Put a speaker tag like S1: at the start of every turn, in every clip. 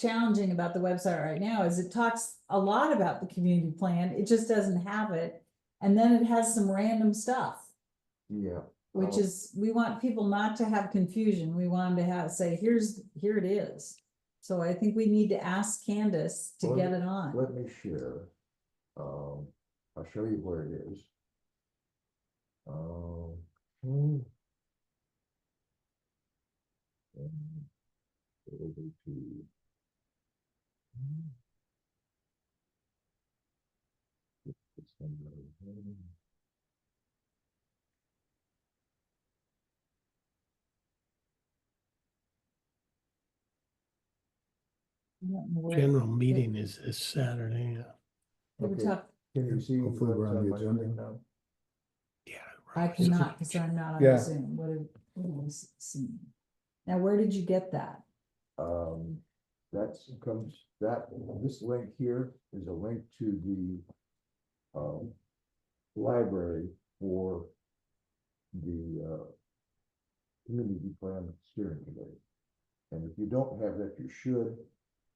S1: challenging about the website right now is it talks a lot about the community plan, it just doesn't have it. And then it has some random stuff,
S2: Yeah.
S1: which
S2: Oh.
S1: is, we want people not to have confusion, we want them to have, say, here's, here it is. So I think we need to ask Candace to
S2: Well,
S1: get it on.
S2: Let me share. Um, I'll show you where it is. Um. hmm. Um, it'll be to- Hmm. It's- it's under, hmm.
S1: I don't know where-
S3: General meeting is this Saturday. uh, yeah.
S1: they were
S2: Okay.
S1: talk-
S2: Can you
S4: Yeah,
S2: see?
S4: hopefully we're
S2: what's
S4: on the
S2: my screen
S4: agenda.
S2: now?
S3: Yeah.
S1: I
S3: right.
S1: cannot, because I'm not
S4: Yeah.
S1: on Zoom, what have, what have I seen? Now, where did you get that?
S2: Um, that's comes, that, this link here is a link to the um, library for the uh, community plan steering committee. And if you don't have that, you should.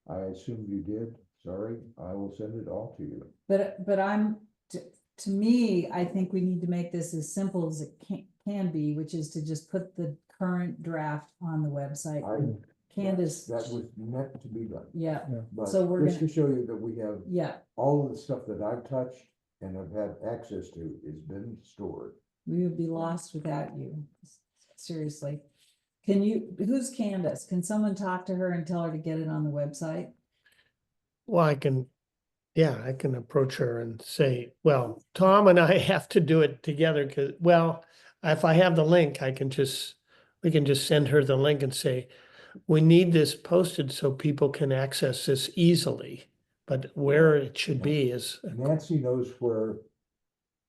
S2: I assume you did. Sorry, I will send it all to you.
S1: But, but I'm, to, to me, I think we need to make this as simple as it can, can be, which is to just put the current draft on the website.
S2: I,
S1: and Candace,
S2: that was meant to be done.
S1: yeah,
S2: But
S1: So we're
S2: just to show you that we have
S1: yeah,
S2: all of the stuff that I've touched and have had access to has been stored.
S1: we would be lost without you, seriously. Can you, who's Candace? Can someone talk to her and tell her to get it on the website?
S3: Well, I can, yeah, I can approach her and say, well, Tom and I have to do it together because, well, if I have the link, I can just, we can just send her the link and say, we need this posted so people can access this easily. But where it should be is,
S2: Nancy knows where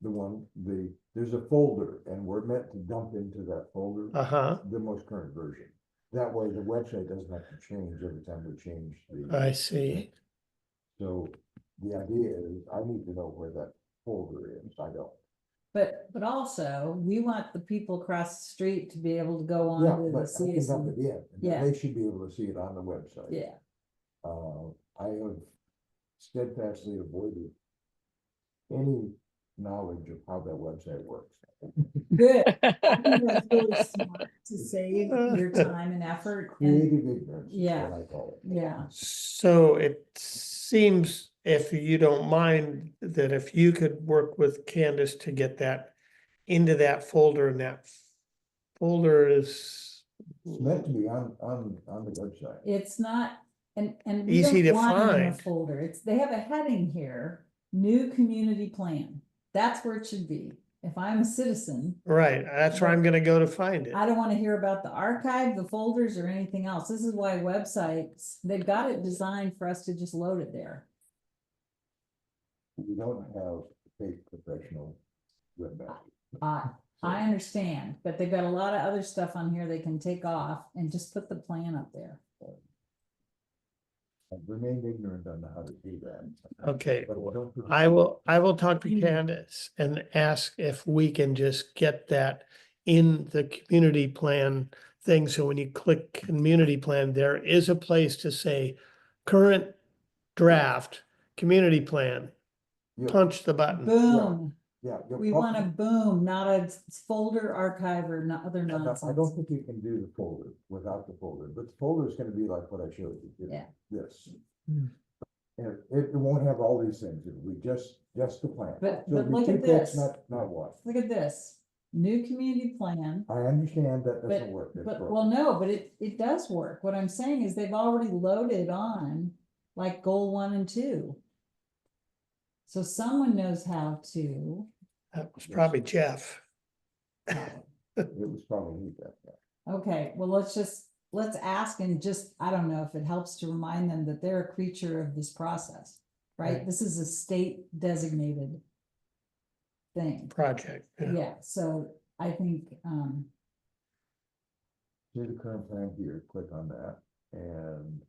S2: the one, the, there's a folder and we're meant to dump into that folder
S3: uh-huh,
S2: the most current version. That way the website doesn't have to change every time we change
S3: I
S2: the,
S3: see.
S2: so the idea is I need to know where that folder is. I don't.
S1: But, but also, we want the people across the street to be able to go
S2: Yeah,
S1: on to
S2: but
S1: the
S2: I can dump
S1: CSU.
S2: it in.
S1: Yeah.
S2: and They should be able to see it on the website.
S1: E. Yeah,
S2: Uh, I have steadfastly avoided any knowledge of how that website works.
S1: good. I think that's really smart To save
S3: Uh,
S1: your time and effort. and-
S2: Creative ignorance. is
S1: Yeah.
S2: what I call it.
S1: Yeah,
S3: So it seems, if you don't mind, that if you could work with Candace to get that into that folder and that folder is
S2: It's meant to be on, on, on the website.
S1: it's not, and, and. we
S3: Easy
S1: don't
S3: to
S1: want it in a
S3: find.
S1: Folder, it's, they have a heading here, new community plan. That's where it should be. If I'm a citizen,
S3: right, that's where I'm gonna go to find it.
S1: I don't wanna hear about the archive, the folders or anything else. This is why websites, they've got it designed for us to just load it there.
S2: We don't have paid professional webmaster.
S1: I, I understand, but they've got a lot of other stuff on here they can take off and just put the plan up there.
S2: I've remained ignorant on how to do that.
S3: Okay,
S2: But I don't think-
S3: I will, I will talk to
S1: Mm.
S3: Candace and ask if we can just get that in the community plan thing. So when you click community plan, there is a place to say current draft, community plan,
S2: Yeah,
S3: punch the button.
S1: Boom.
S2: yeah. you're
S1: We want a
S2: probably-
S1: boom, not a s- folder archive or not other
S2: I don't- I don't
S1: nonsense.
S2: think you can do the folder without the folder, but the folder is gonna be like what I showed you. it's
S1: Yeah.
S2: This.
S3: Hmm.
S2: And it it won't have all these things, it'll be just, just the plan.
S1: But-
S2: So
S1: but
S2: if you
S1: look at
S2: think that's
S1: this.
S2: Not, not what,
S1: Look at this, new community plan,
S2: I understand that doesn't work. that's
S1: but,
S2: broken.
S1: well, no, but it, it does work. What I'm saying is they've already loaded on like goal one and two. So someone knows how to,
S3: That was probably Jeff.
S2: It was probably me that. time.
S1: okay, well, let's just, let's ask and just, I don't know if it helps to remind them that they're a creature of this process, right?
S3: Right.
S1: This is a state designated thing.
S3: Project. yeah.
S1: Yeah, so I think, um,
S2: See the current plan here, click on that and.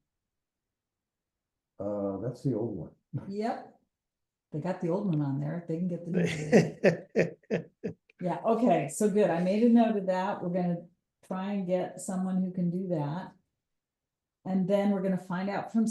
S2: Uh, that's the old one.
S1: yep. They got the old one on there, they can get the new one. Yeah, okay, so good, I made a note of that, we're gonna try and get someone who can do that. And then we're gonna find out from